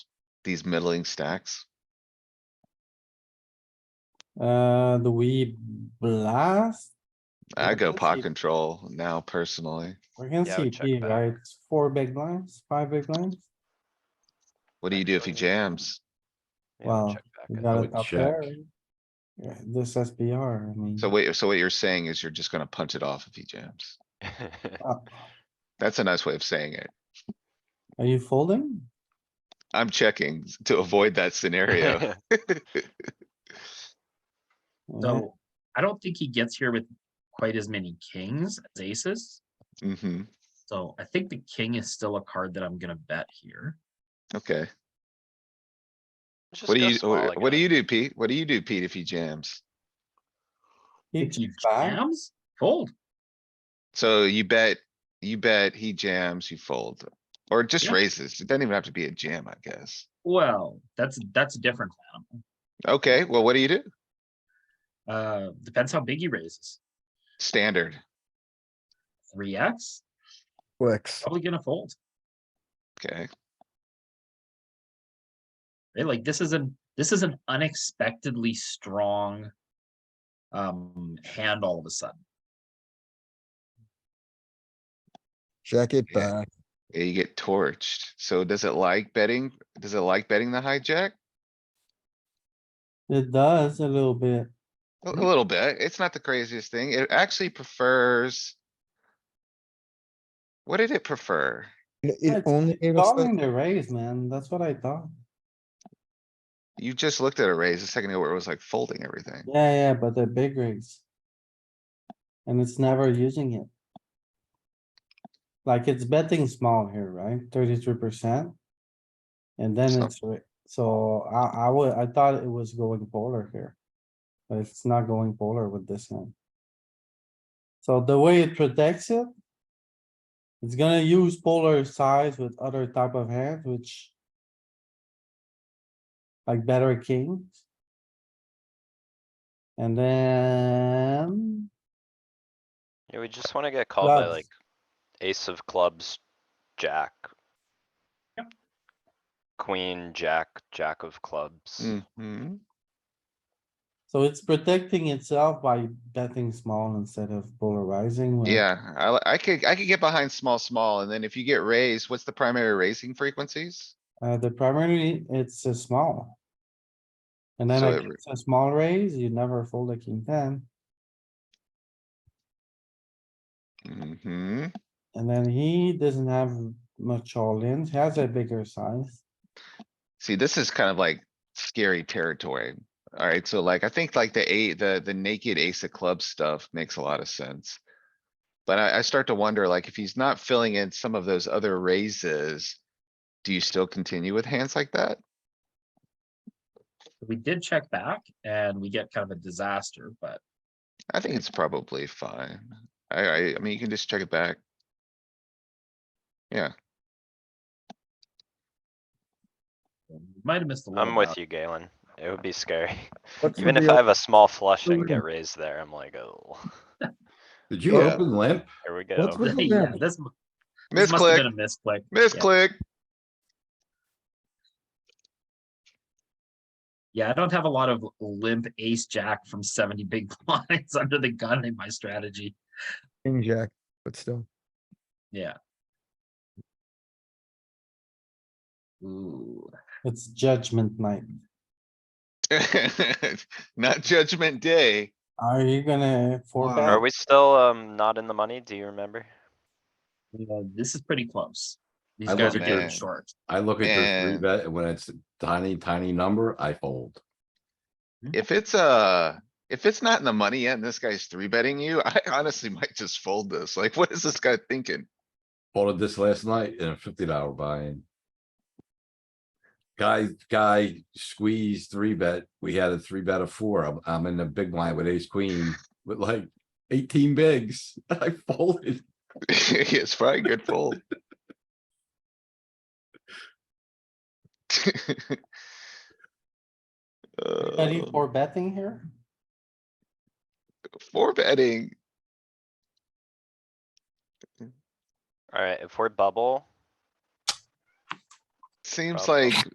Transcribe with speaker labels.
Speaker 1: these middling stacks?
Speaker 2: Uh, do we blast?
Speaker 1: I go
Speaker 2: let's see.
Speaker 1: pot control now personally.
Speaker 2: We're against
Speaker 3: Yeah, I would check
Speaker 2: CP,
Speaker 3: back.
Speaker 2: right? It's Four big blinds, five big blinds?
Speaker 1: What do you do if he jams?
Speaker 3: Yeah, I'll
Speaker 2: Wow,
Speaker 3: check back.
Speaker 2: We
Speaker 3: I
Speaker 2: got
Speaker 3: would
Speaker 2: it up
Speaker 3: check.
Speaker 2: there. Yeah, this SPR, I mean.
Speaker 3: Mm-hmm.
Speaker 1: So wait, so what you're saying is you're just gonna punch it off if he jams.
Speaker 2: uh,
Speaker 1: That's a nice way of saying it.
Speaker 2: Are you folding?
Speaker 1: I'm checking to avoid that scenario.
Speaker 2: Yeah,
Speaker 4: So I don't think he gets here with quite as many kings as aces.
Speaker 1: hmm
Speaker 4: So I think the king is still a card that I'm gonna bet here.
Speaker 1: okay.
Speaker 3: Just
Speaker 1: What do
Speaker 3: go
Speaker 1: you,
Speaker 3: small, uh, I
Speaker 1: what do
Speaker 3: guess.
Speaker 1: you do, Pete? What do you do, Pete, if he jams?
Speaker 2: he
Speaker 4: If he
Speaker 2: checks back.
Speaker 4: jams, fold.
Speaker 1: So you bet, you bet he jams, you fold, or just
Speaker 4: Yeah.
Speaker 1: raises. It doesn't even have to be a jam, I guess.
Speaker 4: Well, that's, that's a different animal.
Speaker 1: Okay, well, what do you do?
Speaker 4: Uh, depends how big he raises.
Speaker 1: Standard.
Speaker 4: Three X,
Speaker 5: Flex.
Speaker 4: probably gonna fold.
Speaker 1: Okay,
Speaker 4: Right? Like this is an, this is an unexpectedly strong um, hand all of a sudden.
Speaker 5: Jack it
Speaker 1: Yeah.
Speaker 5: back.
Speaker 1: Yeah, you get torched. So does it like betting? Does it like betting the hijack?
Speaker 2: It does a little bit.
Speaker 1: A a little bit. It's not the craziest thing. It actually prefers. What did it prefer?
Speaker 5: It- It
Speaker 2: It's-
Speaker 5: only gave us
Speaker 2: Calling
Speaker 5: that.
Speaker 2: the raise, man. That's what I thought.
Speaker 1: You just looked at a raise a second ago where it was like folding everything.
Speaker 2: Yeah, yeah, but the big raise. And it's never using it. Like it's betting small here, right? Thirty-three percent. And then
Speaker 1: So-
Speaker 2: it's, ra- so I, I would, I thought it was going polar here. But it's not going polar with this hand. So the way it protects it. It's gonna use polar size with other type of hands, which. Like better kings. And then,
Speaker 3: Yeah, we just wanna get called by
Speaker 2: Clubs.
Speaker 3: like ace of clubs, jack.
Speaker 4: Yep.
Speaker 3: Queen, jack, jack of clubs.
Speaker 1: Mhm.
Speaker 2: so it's protecting itself by betting small instead of polarizing. when-
Speaker 1: Yeah, I, li- I could, I could get behind small, small, and then if you get raised, what's the primary raising frequencies?
Speaker 2: Uh, the primary, it's a small. And then
Speaker 1: So
Speaker 2: like,
Speaker 1: every-
Speaker 2: it's a small raise, you never fold a king ten,
Speaker 1: hmm
Speaker 2: and then he doesn't have much all in, he has a bigger size.
Speaker 1: See, this is kind of like scary territory. Alright, so like, I think like the eight, the, the naked ace of clubs stuff makes a lot of sense. But I, I start to wonder, like, if he's not filling in some of those other raises, do you still continue with hands like that?
Speaker 4: We did check back and we get kind of a disaster, but
Speaker 1: I think it's probably fine. I, I, I mean, you can just check it back. Yeah,
Speaker 4: we might have missed a little.
Speaker 3: I'm with
Speaker 4: bit.
Speaker 3: you, Galen. It would be scary.
Speaker 5: What's with
Speaker 3: Even if
Speaker 5: the
Speaker 3: I
Speaker 5: op-
Speaker 3: have a small flush and
Speaker 5: Ooh.
Speaker 3: get raised there, I'm like, oh,
Speaker 6: Did you
Speaker 1: Yeah.
Speaker 6: open limp?
Speaker 3: here we
Speaker 5: What's
Speaker 3: go.
Speaker 5: with- the
Speaker 4: Yeah,
Speaker 5: limp?
Speaker 4: this m- this must have been
Speaker 1: misclick,
Speaker 4: a misclick. Yeah.
Speaker 1: misclick.
Speaker 4: Yeah, I don't have a lot of limp ace jack from seventy big blinds under the gun in my strategy.
Speaker 5: King jack, but still.
Speaker 4: Yeah. Ooh,
Speaker 2: It's judgment night.
Speaker 1: Not judgment day.
Speaker 2: Are you gonna four
Speaker 3: Are
Speaker 2: bet?
Speaker 3: we still, um, not in the money? Do you remember?
Speaker 4: yeah, Uh, this is pretty close. These
Speaker 6: I
Speaker 4: guys are
Speaker 6: love
Speaker 4: getting
Speaker 1: that.
Speaker 4: short.
Speaker 6: I look at your three
Speaker 1: Man.
Speaker 6: bet, and when it's a tiny, tiny number, I fold.
Speaker 1: If it's uh if it's not in the money yet and this guy's three betting you, I honestly might just fold this. Like, what is this guy thinking?
Speaker 6: Folded this last night in a fifty dollar buy-in. Guy, guy squeezed three bet. We had a three bet of four. I'm, I'm in the big blind with ace queen with like eighteen bigs. I folded.
Speaker 1: It's probably a good fold.
Speaker 2: Any
Speaker 1: Uh,
Speaker 2: four betting here?
Speaker 1: Four betting,
Speaker 3: Alright, if we're bubble,
Speaker 1: seems
Speaker 3: Probably.
Speaker 1: like